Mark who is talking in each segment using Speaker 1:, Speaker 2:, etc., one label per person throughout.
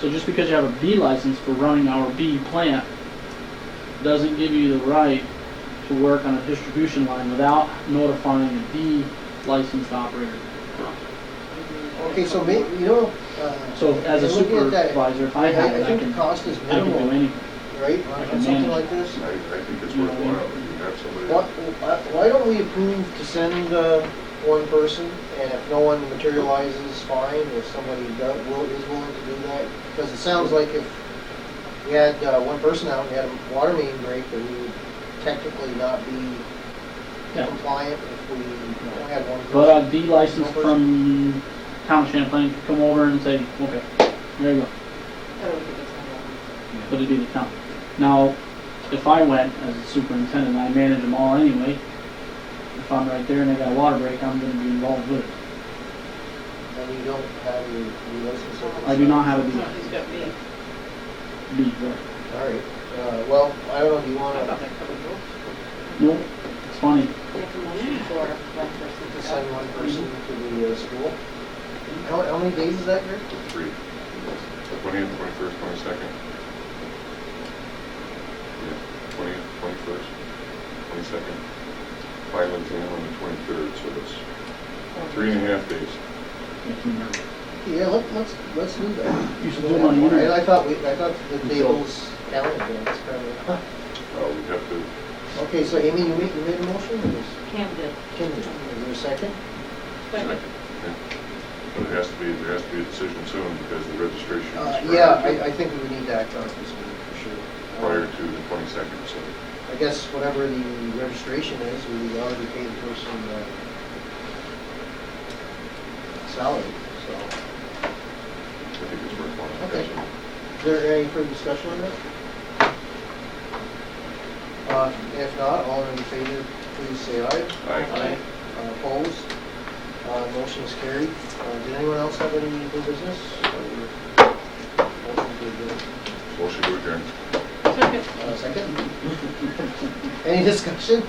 Speaker 1: So just because you have a B license for running our B plant doesn't give you the right to work on a distribution line without notifying a B licensed operator.
Speaker 2: Okay, so may, you know, uh.
Speaker 1: So as a
Speaker 2: looking at that,
Speaker 1: supervisor, if I have it, I
Speaker 2: think the
Speaker 1: can,
Speaker 2: cost is
Speaker 1: I can do
Speaker 2: minimal,
Speaker 1: anything.
Speaker 2: right,
Speaker 1: I
Speaker 2: on
Speaker 1: can
Speaker 2: something
Speaker 1: manage.
Speaker 2: like this?
Speaker 3: I, I think it's worthwhile, you have somebody.
Speaker 2: Why, why why don't we approve to send, uh, one person, and if no one materializes, fine, if somebody does, will, is willing to do that? Because it sounds like if we had, uh, one person out, and we had a water main break, then we would technically not be
Speaker 1: Yeah.
Speaker 2: compliant if we only had one person.
Speaker 1: But a B license from town of Champlain could come over and say, okay, there you go. But it'd be the town. Now, if I went as a superintendent, I manage them all anyway. If I'm right there and they got a water break, I'm gonna be involved with it.
Speaker 2: And you don't have your, your license. or-
Speaker 1: I do not have a B,
Speaker 4: He's got me.
Speaker 1: B, right?
Speaker 2: All right, uh, well, I don't know, do you
Speaker 4: I
Speaker 2: wanna
Speaker 4: thought that covered both.
Speaker 1: Nope, it's funny.
Speaker 2: to send one person to the uh, school? How, how many days is that, Rick?
Speaker 3: Three. Twentieth, twenty-first, twenty-second. Yeah, twentieth, twenty-first, twenty-second. Final exam on the twenty-third, so that's three and a half days.
Speaker 2: Yeah, let, let's, let's do that.
Speaker 1: You should do it on the
Speaker 2: I-
Speaker 1: internet.
Speaker 2: I thought we, I thought the tables counted, but it's probably.
Speaker 3: Uh, we have to,
Speaker 2: Okay, so Amy, you made, you made a motion, or was,
Speaker 4: Cam did.
Speaker 2: Kim, is there a second?
Speaker 3: Second. but it has to be, there has to be a decision soon because the registration
Speaker 2: Uh,
Speaker 3: is
Speaker 2: yeah,
Speaker 3: prior
Speaker 2: I, I
Speaker 3: to,
Speaker 2: think we would need to act on it this meeting, for sure. Uh,
Speaker 3: prior to the twenty-second, so.
Speaker 2: I guess whatever the registration is, we already paid the person, uh, salary, so.
Speaker 3: I think it's worthwhile.
Speaker 2: Okay. Is there any further discussion on that? Uh, If not, all in favor, please say aye.
Speaker 3: Aye.
Speaker 2: Uh, Opposed? Uh, Motion is carried. Uh, Did anyone else have any new business? or motion to adjourn?
Speaker 3: Motion to adjourn.
Speaker 4: Second.
Speaker 2: Uh, Second? Any discussion?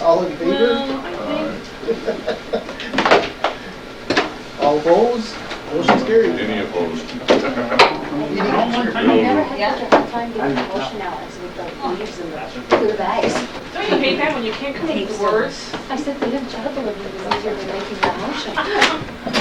Speaker 2: All in favor?
Speaker 4: Well, I think.
Speaker 2: All opposed? Motion is carried.
Speaker 3: Any opposed?
Speaker 1: Not one
Speaker 5: I
Speaker 1: time.
Speaker 5: never had such a hard time getting emotional as with the leaves and the blue bags.
Speaker 4: Don't you hate that when you can't come up with words?
Speaker 5: I said, the job delivery was easier than making that motion.